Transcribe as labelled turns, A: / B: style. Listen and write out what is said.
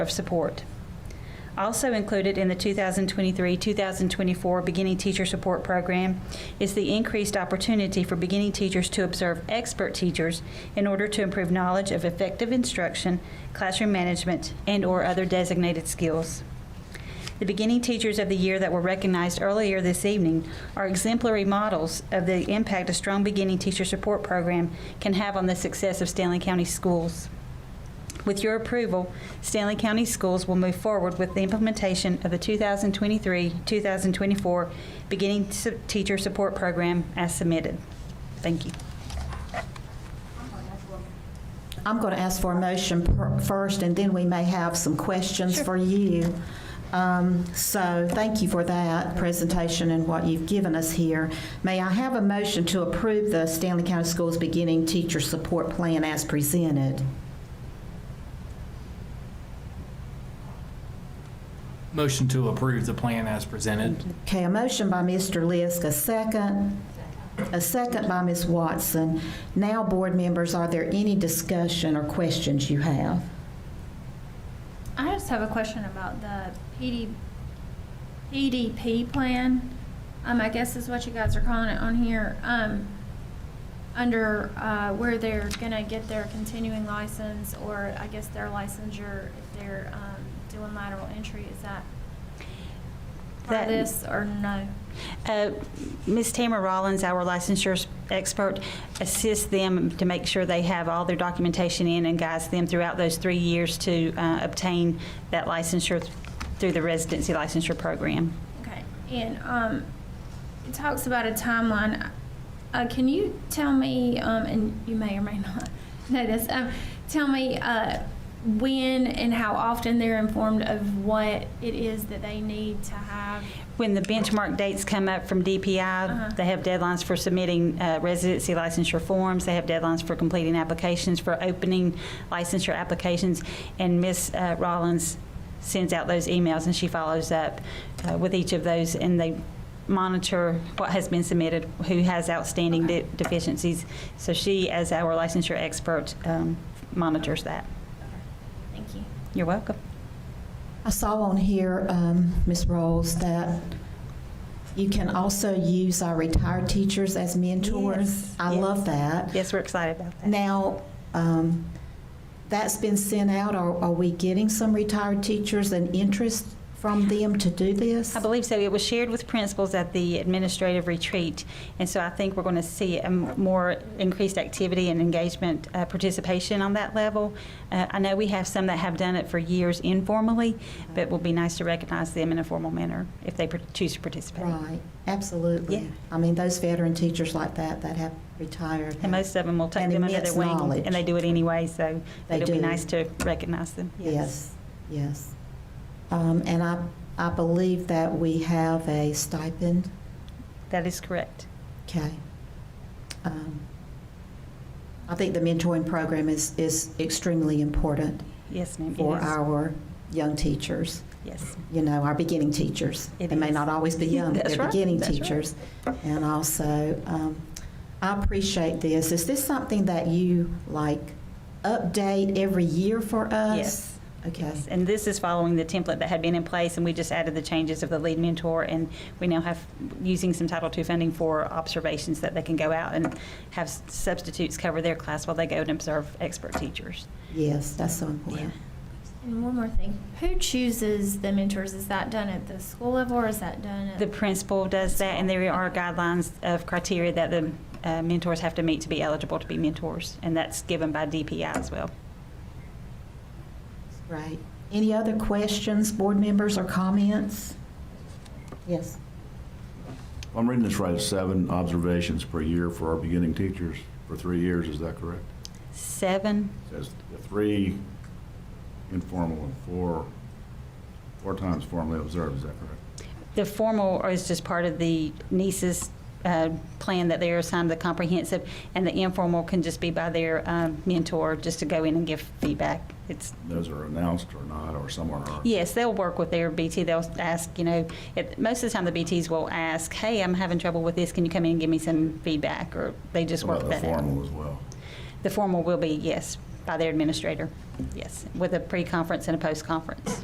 A: of support. Also included in the 2023-2024 Beginning Teacher Support Program is the increased opportunity for beginning teachers to observe expert teachers in order to improve knowledge of effective instruction, classroom management, and/or other designated skills. The beginning teachers of the year that were recognized earlier this evening are exemplary models of the impact a strong beginning teacher support program can have on the success of Stanley County schools. With your approval, Stanley County Schools will move forward with the implementation of the 2023-2024 Beginning Su- Teacher Support Program as submitted. Thank you.
B: I'm going to ask for a motion per- first, and then we may have some questions for you. Um, So thank you for that presentation and what you've given us here. May I have a motion to approve the Stanley County Schools Beginning Teacher Support Plan as presented?
C: Motion to approve the plan as presented.
B: Okay, a motion by Mr. Lisk, a second. A second by Ms. Watson. Now, board members, are there any discussion or questions you have?
D: I just have a question about the PD, PDP plan. Um, I guess is what you guys are calling it on here. Um, under, uh, where they're gonna get their continuing license or I guess their licensure if they're, um, doing lateral entry, is that part
A: That-
D: of this or no?
A: Uh, Ms. Tamara Rollins, our licensure expert, assists them to make sure they have all their documentation in and guides them throughout those three years to uh, obtain that licensure through the residency licensure program.
D: Okay, and, um, it talks about a timeline. Uh, can you tell me, um, and you may or may not know this, um, tell me, uh, when and how often they're informed of what it is that they need to have?
A: When the benchmark dates come up from
D: Uh-huh.
A: DPI, they have deadlines for submitting uh, residency licensure forms, they have deadlines for completing applications, for opening licensure applications, and Ms. uh, Rollins sends out those emails, and she follows up uh, with each of those, and they monitor what has been submitted, who has outstanding de- deficiencies. So she, as our licensure expert, um, monitors that.
D: Thank you.
A: You're welcome.
B: I saw on here, um, Ms. Rolls, that you can also use our retired teachers as mentors.
A: Yes,
B: I
A: yes.
B: love that.
A: Yes, we're excited about that.
B: Now, um, that's been sent out. Are are we getting some retired teachers and interest from them to do this?
A: I believe so. It was shared with principals at the administrative retreat, and so I think we're going to see a m- more increased activity and engagement uh, participation on that level. Uh, I know we have some that have done it for years informally, but it will be nice to recognize them in a formal manner if they par- choose to participate.
B: Right, absolutely.
A: Yeah.
B: I mean, those veteran teachers like that, that have retired.
A: And most of them will take
B: And
A: them under their
B: immense
A: wing,
B: knowledge.
A: and they do it anyway. So
B: They
A: it'll be
B: do.
A: nice to recognize them.
B: Yes, yes. Um, And I, I believe that we have a stipend
A: that is correct.
B: Okay. Um, I think the mentoring program is, is extremely important
A: Yes, ma'am. It
B: for
A: is.
B: our young teachers,
A: yes.
B: you know, our beginning teachers.
A: It
B: They may
A: is.
B: not always be young, but
A: That's
B: they're
A: right.
B: beginning
A: That's right.
B: teachers. And also, um, I appreciate this. Is this something that you, like, update every year for us?
A: Yes.
B: Okay.
A: Yes, and this is following the template that had been in place, and we just added the changes of the lead mentor, and we now have, using some Title II funding for observations that they can go out and have substitutes cover their class while they go and observe expert teachers.
B: Yes, that's so important.
D: And one more thing, who chooses the mentors? Is that done at the school level or is that done at?
A: The principal does that, and there are guidelines of criteria that the uh, mentors have to meet to be eligible to be mentors, and that's given by DPI as well.
B: Right. Any other questions, board members, or comments? Yes.
E: I'm reading this right, seven observations per year for our beginning teachers for three years, is that correct?
A: Seven,
E: It Says the three informal and four, four times formally observed, is that correct?
A: The formal is just part of the NISA's uh, plan that they're assigned the comprehensive, and the informal can just be by their um, mentor, just to go in and give feedback. It's,
E: Those are announced or not, or some are. not.
A: yes, they'll work with their BT, they'll ask, you know, it- most of the time, the BTs will ask, hey, I'm having trouble with this, can you come in and give me some feedback? Or they just
E: What
A: work
E: about the
A: that out.
E: formal as well?
A: The formal will be, yes, by their administrator, yes, with a pre-conference and a post-conference.